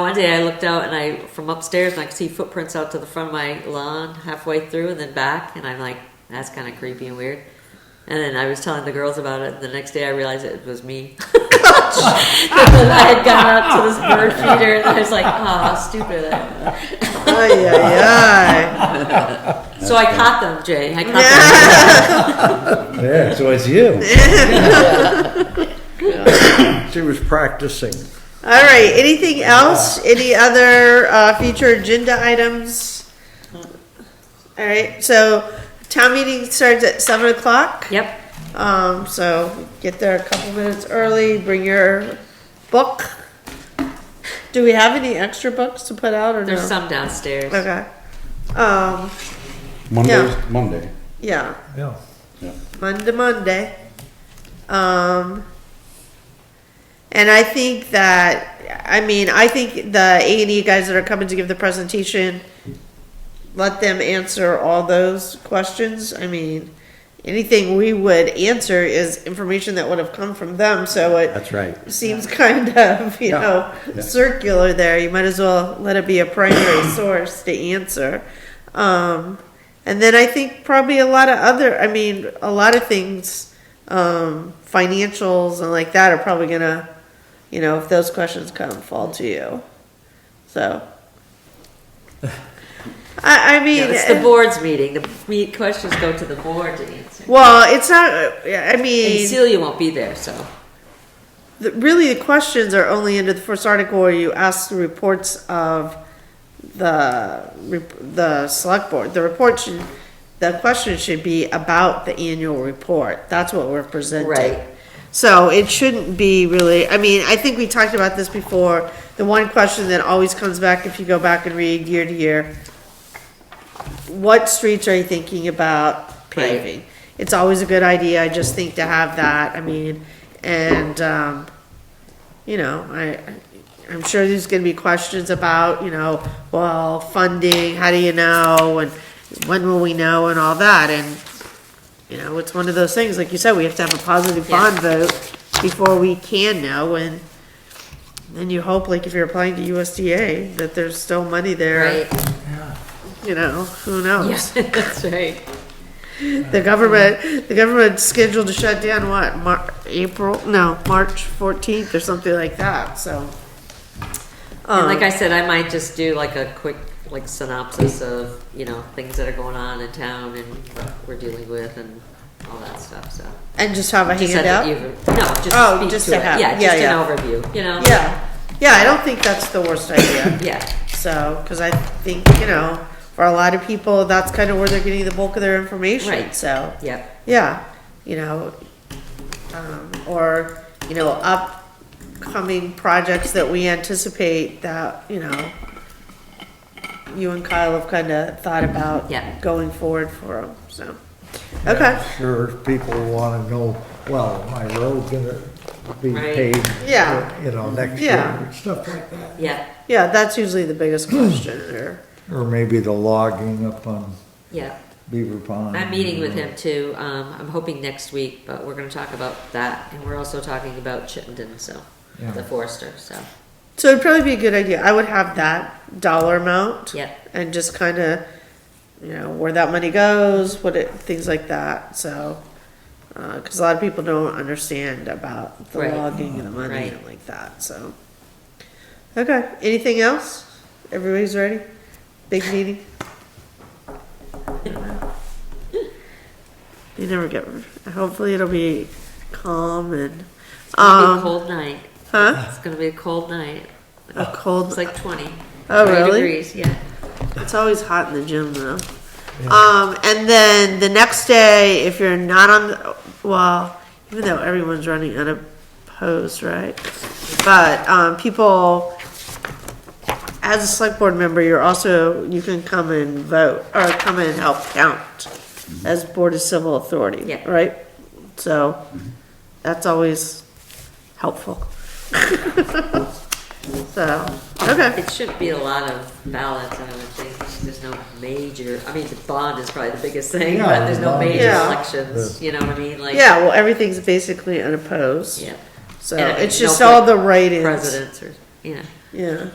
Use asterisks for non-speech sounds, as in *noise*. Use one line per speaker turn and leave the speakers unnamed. one day I looked out and I from upstairs and I could see footprints out to the front of my lawn halfway through and then back and I'm like, that's kind of creepy and weird. And then I was telling the girls about it. The next day I realized it was me. *laughs* I had gone out to this bird feeder and I was like, oh, how stupid that.
Ay, ay, ay.
So I caught them, Jay. I caught them.
Yeah, so it's you.
She was practicing.
All right, anything else? Any other uh, future agenda items? All right, so town meeting starts at seven o'clock.
Yep.
Um, so get there a couple minutes early, bring your book. Do we have any extra books to put out or
There's
no?
some downstairs.
Okay. Um,
Monday,
Yeah.
Monday.
yeah,
Yeah.
Monday, Monday. Um, and I think that, I mean, I think the A and E guys that are coming to give the presentation, let them answer all those questions. I mean, anything we would answer is information that would have come from them, so it
That's right.
seems kind of, you
Yeah.
know, circular there. You might as well let it be a
*coughs*
primary source to answer. Um, and then I think probably a lot of other, I mean, a lot of things, um, financials and like that are probably gonna, you know, if those questions come, fall to you.
*laughs*
So. I, I mean. eh,
Yeah, it's the board's meeting. The me- questions go to the board to answer.
Well, it's not, I mean.
And Celia won't be there, so.
The, really, the questions are only under the first article where you ask the reports of the, rep- the select board. The report should, the question should be about the annual report. That's what we're presenting.
Right.
So it shouldn't be really, I mean, I think we talked about this before. The one question that always comes back if you go back and read year to year, what streets are you thinking about paving? It's always a good idea, I just think to have that, I mean, and, um, you know, I, I'm sure there's gonna be questions about, you know, well, funding, how do you know, and when will we know, and all that, and, you know, it's one of those things, like you said, we have to have a positive
Yeah.
bond vote before we can know, and then you hope, like, if you're applying to USDA, that there's still money there, you know, who knows?
*laughs* Yes, that's right.
The government, the government's scheduled to shut down what, Mar- April, no, March fourteenth or something like that, so.
And like
Um,
I said, I might just do like a quick like synopsis of, you know, things that are going on in town and what we're dealing with and all that stuff, so.
And just have a
Just had that
handout?
you've- No, just
Oh,
speak
just
to
to
it.
have-
Yeah,
yeah,
just
yeah.
an overview, you know?
Yeah, yeah, I don't think that's the worst idea,
Yeah,
so, cause I think, you know, for a lot of people, that's kind of where they're getting the bulk of their information,
Right.
so.
yeah.
Yeah, you know, um, or, you know, upcoming projects that we anticipate that, you know, you and Kyle have kind of thought about
Yeah.
going forward for them, so. Okay,
Sure, people want to know, well, my road gonna be
Right.
paved.
Yeah.
You know, next
Yeah.
year, stuff like that.
Yeah,
yeah, that's usually the biggest question, or,
Or maybe the logging up on
yeah.
Beaver Pond.
I'm meeting with him too. Um, I'm hoping next week, but we're gonna talk about that, and we're also talking about Chittenden, so,
Yeah.
the forester, so,
so it'd probably be a good idea, I would have that dollar amount.
yeah.
And just kind of, you know, where that money goes, what it, things like that, so. uh 'cause cause a lot of people don't understand about the
Right.
logging and the money
Right.
and like that, so. Okay, anything else? Everybody's ready? Big meeting?
*laughs*
You never get, hopefully it'll be calm and,
It'll be a
um,
cold night.
huh?
It's gonna be a cold night.
A cold,
It's like twenty.
Oh,
20
really?
Degrees, yeah.
It's always hot in the gym though. Um, and then the next day, if you're not on, the, well, even though everyone's running unopposed, right? But um, people, as a select board member, you're also you can come and vote or come and help count as board of civil authority,
Yeah.
right? So that's always helpful. *laughs* so okay,
It shouldn't be a lot of ballots, I would think. There's no major, I mean, the bond is probably the biggest thing,
Yeah,
but there's no
bond is-
major
Yeah.
elections, you know what I mean? Like,
yeah. Well, everything's basically unopposed.
Yeah.
So
And
it's
no
just all
pre-
the write-ins.
Presidents or, you know,
Yeah.